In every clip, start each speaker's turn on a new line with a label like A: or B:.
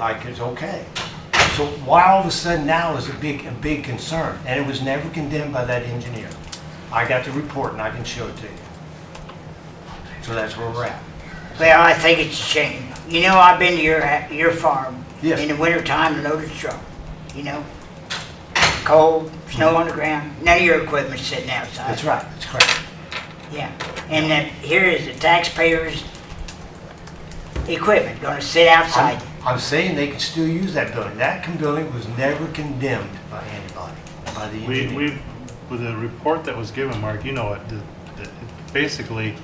A: like it's okay. So why all of a sudden now is a big, a big concern? And it was never condemned by that engineer. I got the report and I can show it to you. So that's where we're at.
B: Well, I think it's a shame. You know, I've been to your, your farm.
A: Yes.
B: In the wintertime, loaded truck, you know? Cold, snow on the ground, none of your equipment's sitting outside.
A: Mm-hmm. That's right, that's correct.
B: Yeah, and that here is the taxpayers' equipment gonna sit outside.
A: I'm- I'm saying they can still use that building. That con- building was never condemned by anybody, by the
C: We,
A: engineer.
C: we, with the report that was given, Mark, you know it, the- the- it- basically,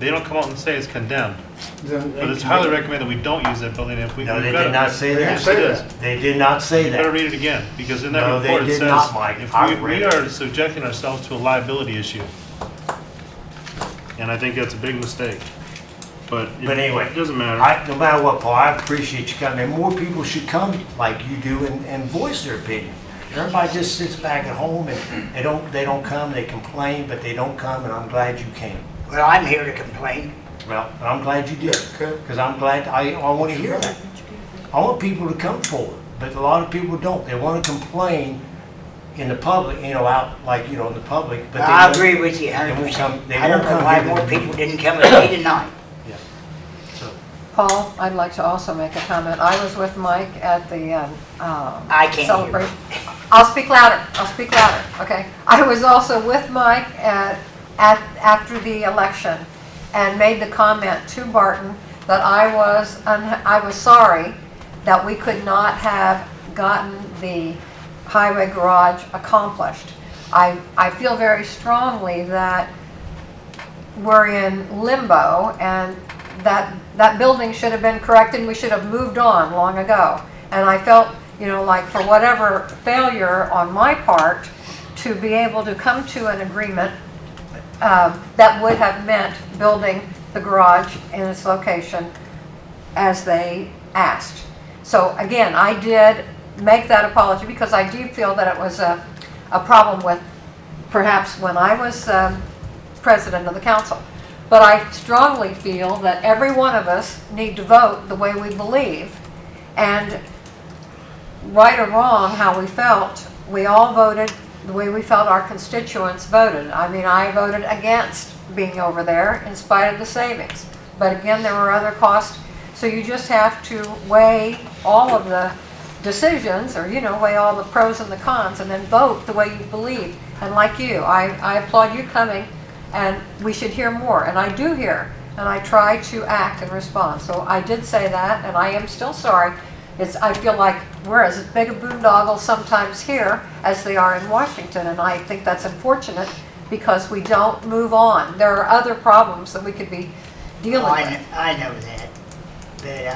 C: they don't come out and say it's condemned, but it's highly recommended we don't use that building if we.
A: No,
C: we've
A: they
C: got
A: did
C: it.
A: not say
C: Yes, it
A: that.
C: is.
A: They did not say
C: You better
A: that.
C: read it again, because in that
A: No, they
C: report it
A: did
C: says.
A: not, Mike.
C: if
A: I
C: we-
A: read
C: We
A: it.
C: are subjecting ourselves to a liability issue. And I think that's a big mistake, but. it-
A: But anyway,
C: It doesn't matter.
A: I, no matter what, Paul, I appreciate you coming. And more people should come like you do and, and voice their opinion. Everybody just sits back at home and they don't, they don't come, they complain, but they don't come, and I'm glad you came.
B: Well, I'm here to complain.
A: Well, and I'm glad you did,
D: Okay.
A: because I'm glad, I, I want to hear that. I want people to come forward, but a lot of people don't. They want to complain in the public, you know, out, like, you know, in the public, but they.
B: I
A: won't-
B: agree with you
A: They
B: hundred
A: won't
B: percent.
A: come, they
B: I don't
A: won't
B: know
A: come.
B: why
A: here.
B: more people didn't come and see tonight.
A: Yeah. So,
E: Paul, I'd like to also make a comment. I was with Mike at the, um, um...
B: I can't hear.
E: celebra- I'll speak louder, I'll speak louder, okay? I was also with Mike at, at, after the election and made the comment to Barton that I was, unha- I was sorry that we could not have gotten the highway garage accomplished. I, I feel very strongly that we're in limbo and that, that building should have been corrected and we should have moved on long ago. And I felt, you know, like for whatever failure on my part to be able to come to an agreement um, that would have meant building the garage in its location as they asked. So again, I did make that apology because I do feel that it was a, a problem with perhaps when I was um, president of the council. But I strongly feel that every one of us need to vote the way we believe. And right or wrong, how we felt, we all voted the way we felt our constituents voted. I mean, I voted against being over there in spite of the savings. But again, there were other costs, so you just have to weigh all of the decisions, or, you know, weigh all the pros and the cons, and then vote the way you believe. And like you, I, I applaud you coming, and we should hear more, and I do hear, and I try to act and respond. So I did say that, and I am still sorry. It's, I feel like we're as big a boondoggle sometimes here as they are in Washington, and I think that's unfortunate because we don't move on. There are other problems that we could be dealing
B: I,
E: with.
B: kn- I know that, but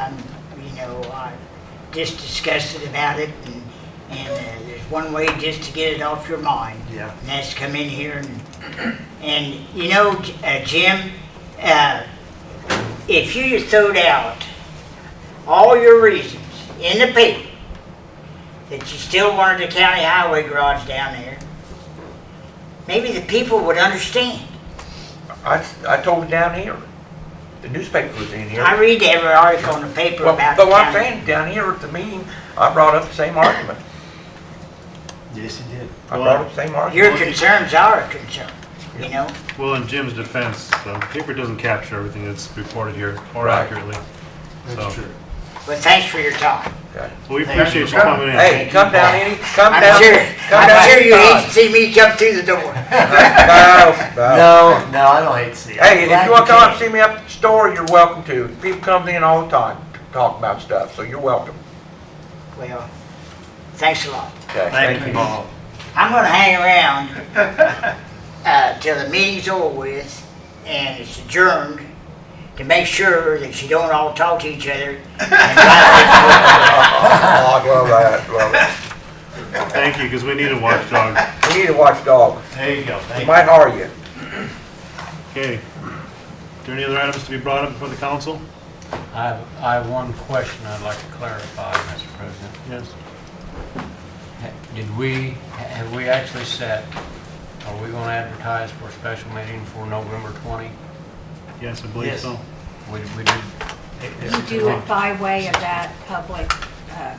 B: I'm, you know, I just disgusted about it, and, and uh, there's one way just to get it off your mind.
A: Yeah.
B: And that's come in here and, and you know, J- uh, Jim, uh, if you just throwed out all your reasons in the paper that you still wanted the county highway garage down there, maybe the people would understand.
F: I, I told it down here. The newspaper was in here.
B: I read every article in the paper
F: Well,
B: about.
F: but
B: the
F: what I'm
B: county.
F: saying, down here at the meeting, I brought up the same argument.
A: yes, it did.
F: I brought up the same argument.
B: Your concerns are a concern, you know?
C: Well, in Jim's defense, the paper doesn't capture everything that's reported here more
F: Right.
C: accurately. So-
A: That's true.
B: But thanks for your time.
F: Okay.
C: We appreciate you coming in.
F: Hey, come down any, come
B: I'm
F: down,
B: sure,
F: come down
B: I'm sure you hate to
F: anytime.
B: see me come through the door.
F: No, no.
A: No, no, I don't hate to see it.
F: Hey, if
A: Glad
F: you wanna come up
A: came.
F: and see me up at the store, you're welcome to. People come in all the time to talk about stuff, so you're welcome.
B: Well, thanks a lot.
F: Okay,
A: Thank you, Paul.
B: I'm gonna hang around, uh, till the meeting's over with and it's adjourned to make sure that you don't all talk to each other.
F: Oh, well, that, well,
C: Thank you, because we need a watchdog.
F: we need a watchdog.
A: There you go. Thank
F: We
A: you.
F: might hire you.
C: Okay. Are there any other items to be brought up before the council?
G: I have, I have one question I'd like to clarify, Mr. President.
C: Yes.
G: Ha- Did we, have we actually set, are we going to advertise for a special meeting for November 20?
C: Yes, I
A: Yes.
C: believe so.
G: We, we did,
A: It-
H: You
A: it's-
H: do it by way of that public
D: uh,